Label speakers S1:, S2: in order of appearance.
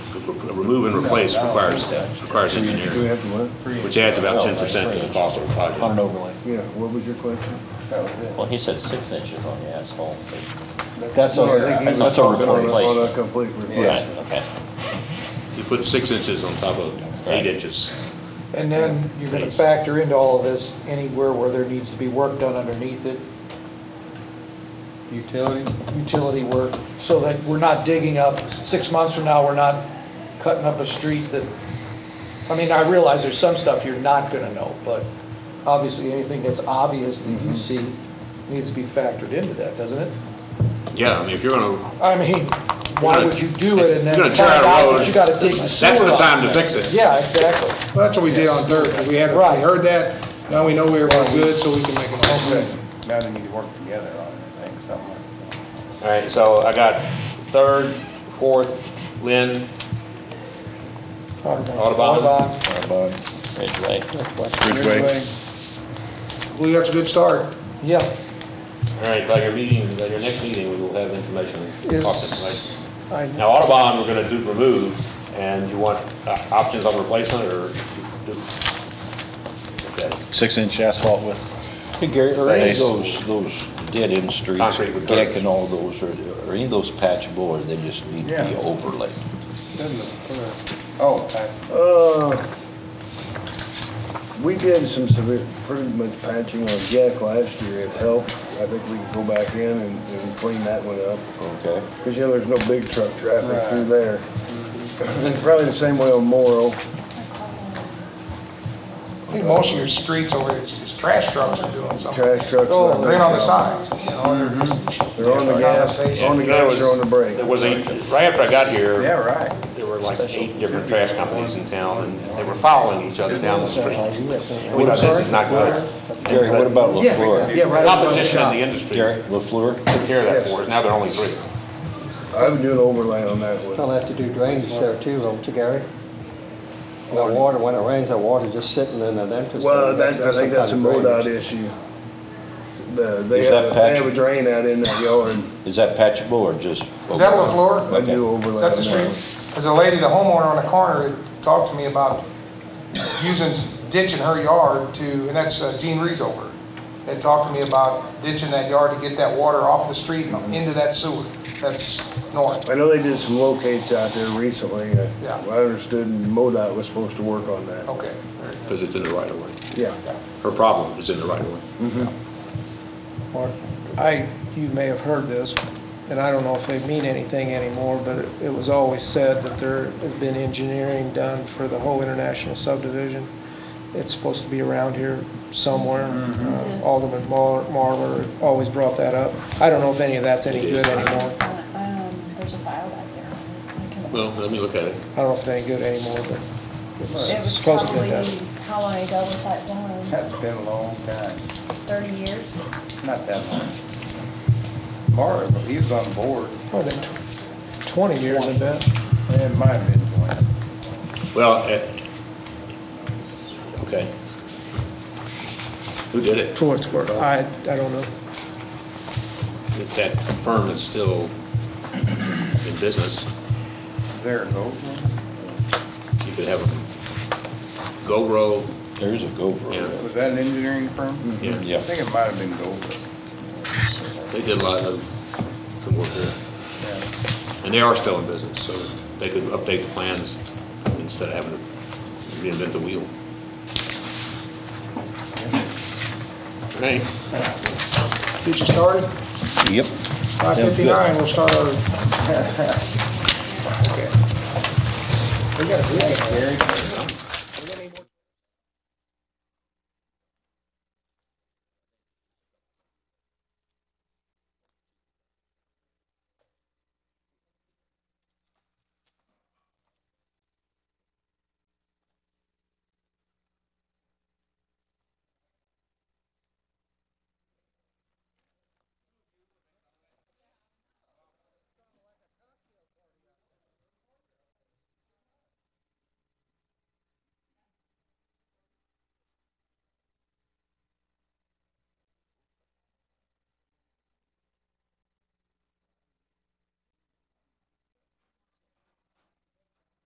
S1: remove and replace requires, requires
S2: Do we
S1: engineering,
S2: have to what?
S1: which adds about ten percent to the cost of the
S3: on an
S1: project.
S3: overlay.
S2: Yeah, what was your question?
S3: Well, he said six inches on the asphalt. but-
S4: That's
S2: No, I
S4: over.
S2: think he was
S3: That's a
S2: talking about
S3: replacement.
S2: On a complete
S3: Right,
S2: replacement.
S3: okay.
S1: You put six inches on top of eight inches.
S4: And then you're gonna
S1: Base.
S4: factor into all of this anywhere where there needs to be work done underneath it,
S5: Utilities?
S4: utility work, so that we're not digging up, six months from now, we're not cutting up a street that, I mean, I realize there's some stuff you're not gonna know, but obviously, anything that's obvious that
S1: Mm-hmm.
S4: you see needs to be factored into that, doesn't it?
S1: Yeah, I mean, if you're gonna,
S4: I mean, why would you do
S1: if
S4: it and
S1: you're
S4: then
S1: gonna
S4: find
S1: tear out a
S4: out
S1: road,
S4: that you gotta dig the
S1: that's
S4: sewer
S1: the
S4: up?
S1: time to fix it.
S4: Yeah, exactly.
S6: Well, That's what we did on Thursday, we had, we
S4: Right.
S6: heard that, now we know we were good, so we can make a motion.
S5: Now they need to work together on it, I think, something like
S1: All right, so I got third, fourth, Lynn, Audubon.
S4: Audubon.
S3: Ridgeway.
S5: Anyway,
S6: Well, that's a good start.
S4: Yeah,
S1: All right, by your meeting, by your next meeting, we will have information,
S4: Is-
S1: cost information.
S4: I
S1: Now, Audubon, we're gonna do remove, and you want uh, options on replacement, or? do- okay.
S3: Six-inch asphalt with.
S7: Hey Gary, are any
S3: Thanks.
S7: of those, those dead-end streets,
S1: Concrete with
S7: deck
S1: dirt.
S7: and all those, are, are any of those patchable or they just need to be
S5: Yeah.
S7: overlaid?
S5: Oh, I-
S2: Uh, We did some severe, pretty much patching on Jack last year, it helped. I think we can go back in and and clean that one up.
S7: Okay.
S2: Because, you know, there's no big truck traffic through there. And probably the same way on Morrow.
S6: I think most of your streets over, it's, it's trash trucks are doing something.
S2: Trash trucks.
S4: Oh,
S6: They're in on the sides, you know, there's
S2: They're on the gas, on the gas or on the brake.
S1: There was a, right after I got here.
S5: yeah, right.
S1: There were like eight different trash companies in town, and they were following each other down the street. And we thought, this is not good.
S7: Gary, what about LaFleur?
S2: Yeah, right.
S1: Competition in the industry
S7: Gary, LaFleur?
S1: took care of that for us, now there are only three.
S2: I would do an overlay on that one.
S8: They'll have to do drainage there too, won't you, Gary? The water, when it rains, the water just sitting in an entrance.
S2: Well, that, I think that's a
S8: Some kind of
S2: MoDOT
S8: drainage.
S2: issue. The, they
S7: Is that
S2: have, they have a
S7: patchy?
S2: drain out in that yard.
S7: Is that patchable or just?
S6: Is that
S7: overlaid?
S6: LaFleur?
S2: I do
S6: Is
S2: overlay
S6: that
S2: on
S6: the
S2: that
S6: street?
S2: one.
S6: There's a lady, the homeowner on the corner, who talked to me about using, ditching her yard to, and that's uh, Gene Reesover, had talked to me about ditching that yard to get that water off the street and into that sewer. That's north.
S2: I know they did some locates out there recently. uh,
S6: Yeah.
S2: I understood MoDOT was supposed to work on that.
S6: Okay. very good.
S1: Because it's in the right of way.
S2: Yeah.
S1: Her problem is in the right of way.
S9: Mark, I, you may have heard this, and I don't know if they mean anything anymore, but it- it was always said that there has been engineering done for the whole international subdivision. It's supposed to be around here somewhere. Uh,
S10: Yes.
S9: Alderman Mar- Marler always brought that up. I don't know if any of that's any
S1: It is.
S9: good anymore.
S10: Um, there's a file out there. I can-
S1: Well, let me look at it.
S9: I don't know if it's any good anymore, but it
S10: It
S9: was
S10: was
S9: supposed to be
S10: probably,
S9: done.
S10: how long ago was that done?
S5: That's been a long time,
S10: Thirty years?
S5: not that long. Mara, he was on board,
S9: More than tw- 20 years, I bet.
S5: it might have been twenty.
S1: Well, eh, okay. Who did it?
S9: For what it's worth, I, I don't know.
S1: It's that firm that's still in business.
S5: There it goes.
S1: You could have a go row,
S7: There is a
S1: Yeah.
S7: GoPro.
S5: Was that an engineering firm?
S2: Mm-hmm.
S1: Yeah.
S7: Yeah.
S5: I think it might have been Goldberg.
S1: they did a lot of good work there.
S5: Yeah.
S1: And they are still in business, so they could update the plans instead of having to reinvent the wheel. Okay.
S6: Get you started?
S7: Yep.
S6: Five fifty-nine, we'll start our
S5: Gary,